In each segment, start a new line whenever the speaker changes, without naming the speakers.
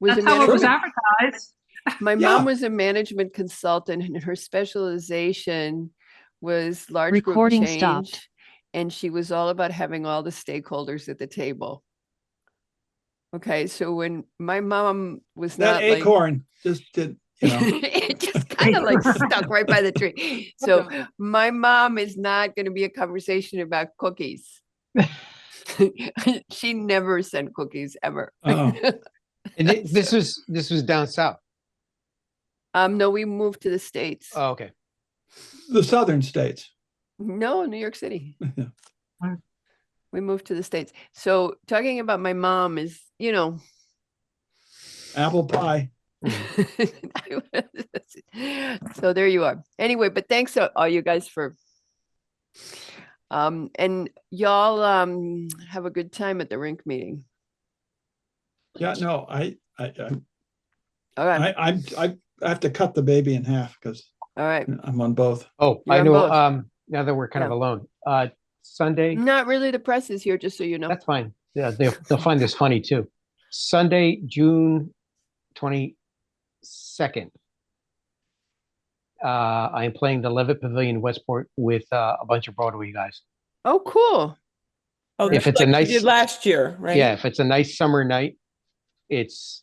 was a
That's how it was
management,
advertised.
my
Yeah.
mom was a management consultant and her specialization was large group
Recording stopped.
change. And she was all about having all the stakeholders at the table. Okay, so when my mom was not
That
like.
acorn just did, you know,
it just kind of like stuck right by the tree. So my mom is not going to be a conversation about cookies. she never sent cookies ever.
oh,
And thi- this was, this was down south.
Um, no, we moved to the states.
Uh,
Oh, okay.
the southern states.
No, New York City.
Yeah.
Wow.
we moved to the states. So talking about my mom is, you know,
Apple pie.
so there you are. Anyway, but thanks to all you guys for um and y'all um have a good time at the rink meeting.
Yeah, no, I, I, I-
All right,
I, I'm- I, I have to cut the baby in half because
all right.
I'm on both.
Oh,
You're
I
on
know,
both.
um, now that we're kind of
Yeah.
alone, uh, Sunday,
Mm-hmm.
Not really the press is here, just so you know.
that's fine. Yeah, they'll, they'll find this funny too. Sunday, June twenty-second. Uh, I am playing the Levitt Pavilion in Westport with, uh, a bunch of Broadway guys.
Oh, cool.
Oh,
If
that's
it's a
like we
nice-
Did last year, right?
Yeah, if it's a nice summer night, it's,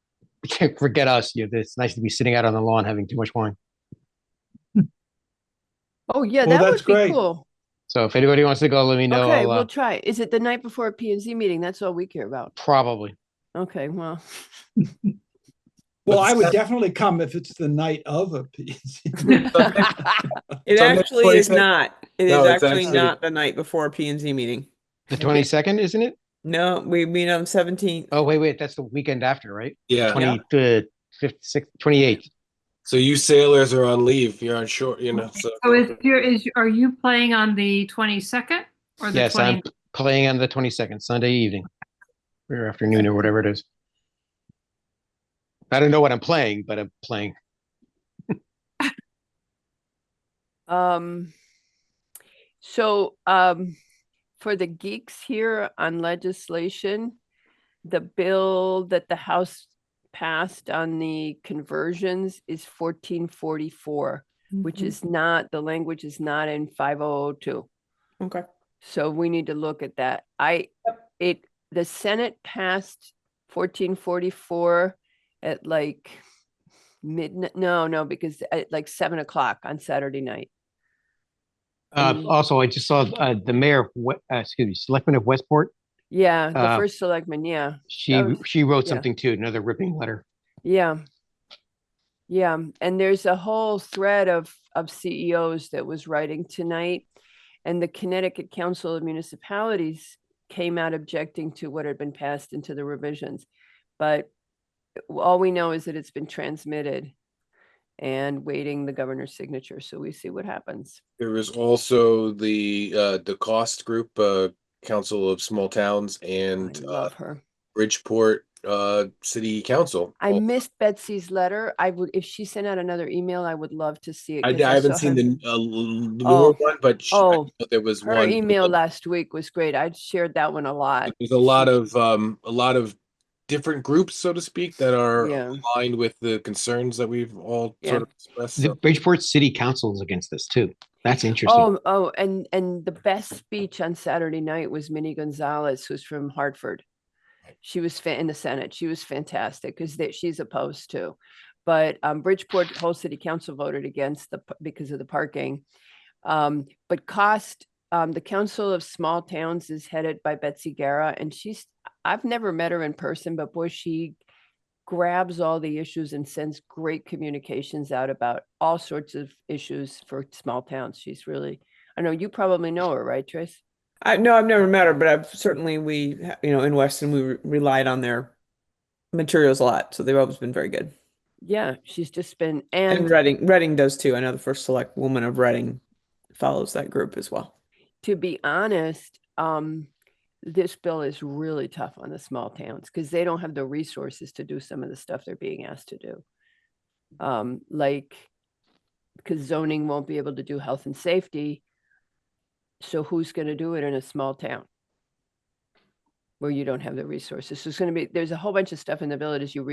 forget us, you, it's nice to be sitting out on the lawn having too much wine.
Oh, yeah,
Well,
that would
that's
be
great.
cool.
So if anybody wants to go, let me know.
okay,
I'll, uh,
we'll try. Is it the night before a P and Z meeting? That's all we care about.
Probably.
Okay, well,
Well,
But
I would
Sun-
definitely come if it's the night of a piece.
It
Sunday
actually is
22nd.
not. It is
No, it's
actually
actually-
not the night before P and Z meeting.
The twenty-second, isn't it?
No, we meet on seventeenth.
Oh, wait, wait, that's the weekend after, right?
Yeah.
Twenty, the fifth, sixth, twenty-eighth.
So you sailors are on leave. You're on shore. You know. So,
So is your, is, are you playing on the twenty-second or the
Yes, I'm
twenty?
playing on the twenty-second, Sunday evening. Or afternoon or whatever it is. I don't know what I'm playing, but I'm playing.
um, so um, for the geeks here on legislation, the bill that the House passed on the conversions is fourteen forty-four, which is not the language is not in five oh two.
Okay.
So we need to look at that. I, it, the Senate passed fourteen forty-four at like midnight, no, no, because at like seven o'clock on Saturday night.
Uh,
Mm.
also, I just saw, uh, the mayor, of We- uh, excuse me, selectman of Westport,
Yeah, the
Uh,
Um,
first selectman, yeah,
she,
That was-
she wrote
yeah.
something too, another ripping letter.
yeah. Yeah, and there's a whole thread of, of CEOs that was writing tonight. And the Connecticut Council of Municipalities came out objecting to what had been passed into the revisions. But all we know is that it's been transmitted and waiting the governor's signature. So we see what happens.
there was also the uh, the cost group, uh, Council of Small Towns,
I
and uh,
love her.
Bridgeport uh, City Council.
I
all-
missed Betsy's letter. I would, if she sent out another email, I would love to see it.
I,
'cause
I haven't
saw
seen
her-
the uh, l-
Oh.
newer one, but sh- I
Oh,
know there was
Her
one.
email last week was great. I shared that one a lot.
There's a lot of um, a lot of different groups, so to speak, that are
Yeah.
aligned with the concerns that we've all
Yeah.
sort of expressed.
The
so-
Bridgeport City Council is against this too. That's interesting.
Oh, oh, and and the best speech on Saturday night was Minnie Gonzalez, who's from Hartford. She was fa- in the Senate. She was fantastic because that she's opposed to, but um, Bridgeport whole city council voted against the p- because of the parking. Um, but cost um, the Council of Small Towns is headed by Betsy Guerra, and she's I've never met her in person, but boy, she grabs all the issues and sends great communications out about all sorts of issues for small towns. She's really, I know you probably know her, right, Trace?
I no, I've never met her, but I've certainly we ha- you know in Weston we re- relied on their materials a lot, so they've always been very good.
Yeah, she's just been,
And
and
Reading, Reading does too. I know the first select woman of Reading follows that group as well.
to be honest, um, this bill is really tough on the small towns because they don't have the resources to do some of the stuff they're being asked to do. Um, like, because zoning won't be able to do health and safety. So who's going to do it in a small town? Where you don't have the resources. So it's going to be, there's a whole bunch of stuff in the bill that as you read